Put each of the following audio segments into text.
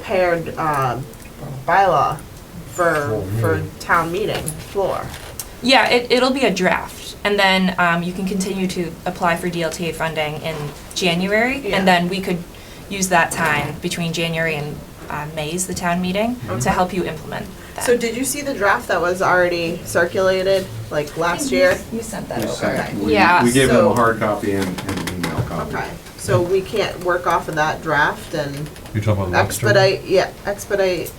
prepared um, bylaw for, Floor for meeting. town meeting floor. Yeah, it, it'll be a draft, and then um, you can continue to apply for DLTA funding in January, Yeah. and then we could use that time between January and uh, May's the town meeting to help you implement that. So did you see the draft that was already circulated, like last year? you sent that We over. sent- we- Yeah, We gave them so- a hard copy and and an email copy. Okay, so we can't work off of that draft and You're talking about Webster? expedite, yeah, expedite,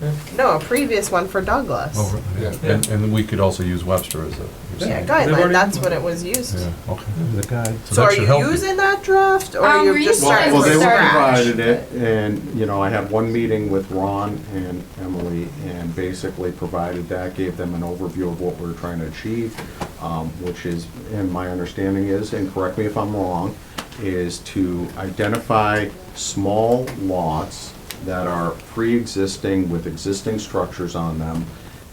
Hmm. no, a previous one for Douglas. Oh, right, yeah. And, and we could also use Webster as a. you're Yeah, saying. guideline, that's what it was used. Yeah, okay. The guide. So that are should you help you. using that draft, or Um, you're we're just using starting it Well, from for well, they Sorry. provided it, and, you know, I had one meeting with Ron and Emily, and basically provided that, gave them an overview of what we're trying to achieve, um, which is, and my understanding is, and correct me if I'm wrong, is to identify small lots that are pre-existing with existing structures on them,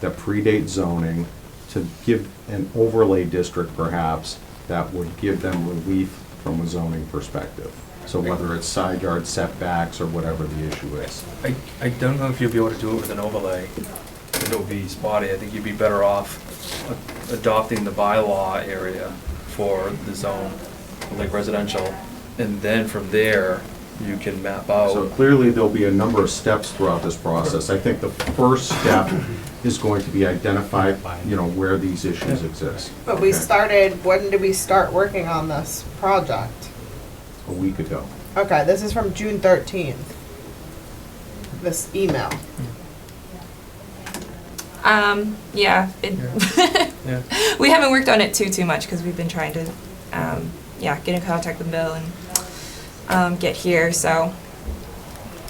that predate zoning, to give an overlay district perhaps, that would give them relief from a zoning perspective. So whether it's side yard setbacks or whatever the issue is. I, I don't know if you'll be able to do it with an overlay. It'll be spotty. I think you'd be better off a- adopting the bylaw area for the zone, like residential. And then from there, you can map So out. clearly, there'll be a number of steps throughout this process. I think the first step is going to be identify, you know, where these issues exist. But we Okay. started, when did we start working on this project? A week ago. Okay, this is from June thirteenth. This email. Um, yeah, it- Yeah. we haven't worked on it too, too much, because we've been trying to, um, yeah, get in contact with Bill and um, get here, so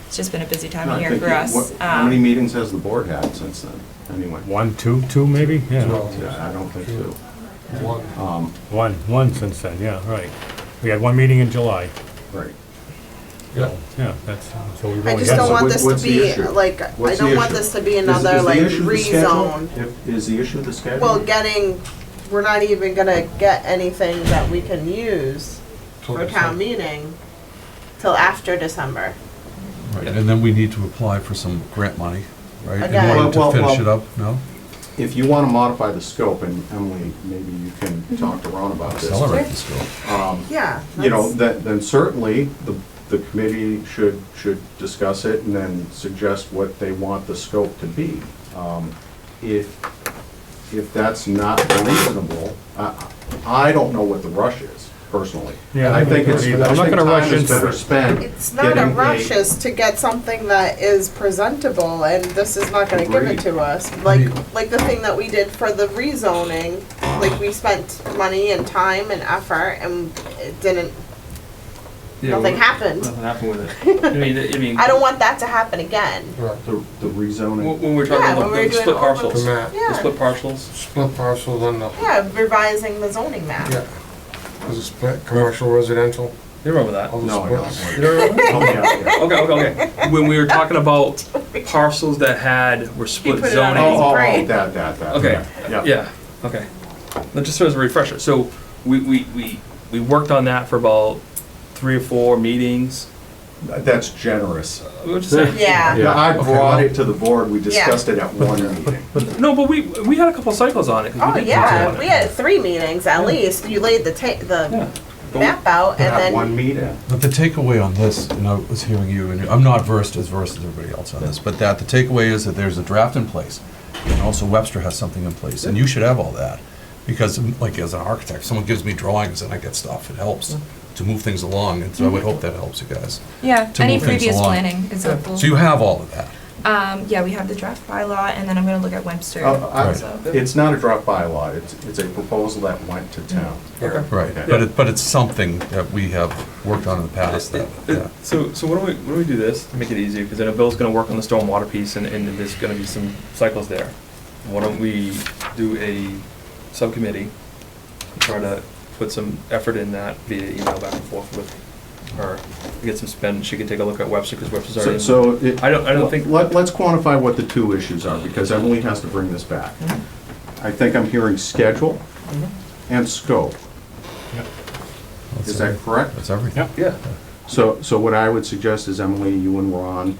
it's just been a busy time No, of I year think for you- us. what- How many Um, meetings has the board had since then, anyway? One, two, two maybe? Yeah. Yeah, I don't think so. Um, One, one since then, yeah, right. We had one meeting in July. Right. so, Yeah, that's, so we've I only just had don't so want what- this to what's the be, issue? like, I What's the don't want issue? this to be Is- is another, the like, issue the schedule? rezone. If- Is the issue the schedule? Well, getting, we're not even gonna get anything that we can use for town meeting till after December. Right, and then we need to apply for some grant money, right? Okay. In order Well, to well, finish well- it up, no? If you want to modify the scope, and Emily, maybe you Mm-hmm. can talk to Ron about this. Um, Accelerate the scope. Yeah. You know, that's- then, then certainly, the, the committee should, should discuss it and then suggest what they want the scope to be. Um, If, if that's not reasonable, I, I don't know what the rush is, personally. Yeah, I I don't think know it's, either. I I'm not think gonna rush time is into it. better spent. It's not a getting rush, is to get something that is presentable, and this is not gonna give it Agreed. to us. Like, Agreed. like the thing that we did for the rezoning, like, we spent money and time and effort, and it didn't, Yeah, nothing well, happened. Nothing happened with it. I mean, I mean. I don't want that to happen again. The the When rezoning, when we're Yeah, when talking about we were the doing split all those- parcels, Map, the Yeah, split parcels, split parcel, then the, yeah, revising the zoning map. yeah. Was it split, commercial, residential? you remember that? Oh, all the no, I splits? don't. Oh, You don't remember? Help me out here. Okay, okay, okay. When we were talking about parcels that had, were split put it on zoning. his Oh, oh, oh, Right. that, that, that. Okay. Yeah. Yeah, okay. Now, just as a refresher, so we, we, we, we worked on that for about three or four meetings. That's generous. We'll just say- Yeah. Yeah, I brought it to the board, we Yeah. discussed it at one meeting. No, but we, we had a couple cycles on it. 'cause we Oh did work on yeah, it. we had three meetings at least. You laid the ta- Yeah. the But we- map out, and At then one meeting. But the takeaway on this, and I was hearing you, and I'm not versed as versed as everybody else on this, but that the takeaway is that there's a draft in place, and also Webster has something in place, and you should have all that. Because, um, like, as an architect, someone gives me drawings and I get stuff, it Mm. helps to move things along, and so I would Mm-hmm. hope that helps you guys. Yeah, to any move things previous along. planning is helpful. Mm-hmm. So you have all of that. Um, yeah, we have the draft bylaw, and then I'm gonna look at Webster. Uh, I- So- It's not a draft bylaw, it's, it's a proposal that went to town. Okay. Right, but it, but it's something that we have worked on in the past that, yeah. So, so why don't we, why don't we do this to make it easier, because I know Bill's gonna work on the stormwater piece and, and there's gonna be some cycles there. Why don't we do a subcommittee, try to put some effort in that via email back and forth with her, get some spend, she can take a look at Webster, because Webster's So- already. So. it- I don't- I don't think- Let, let's quantify what the two issues are, because Emily has to bring this back. I think I'm hearing schedule and scope. Is that correct? That's everything. Yep. Yeah, So, so what I would suggest is Emily, you and Ron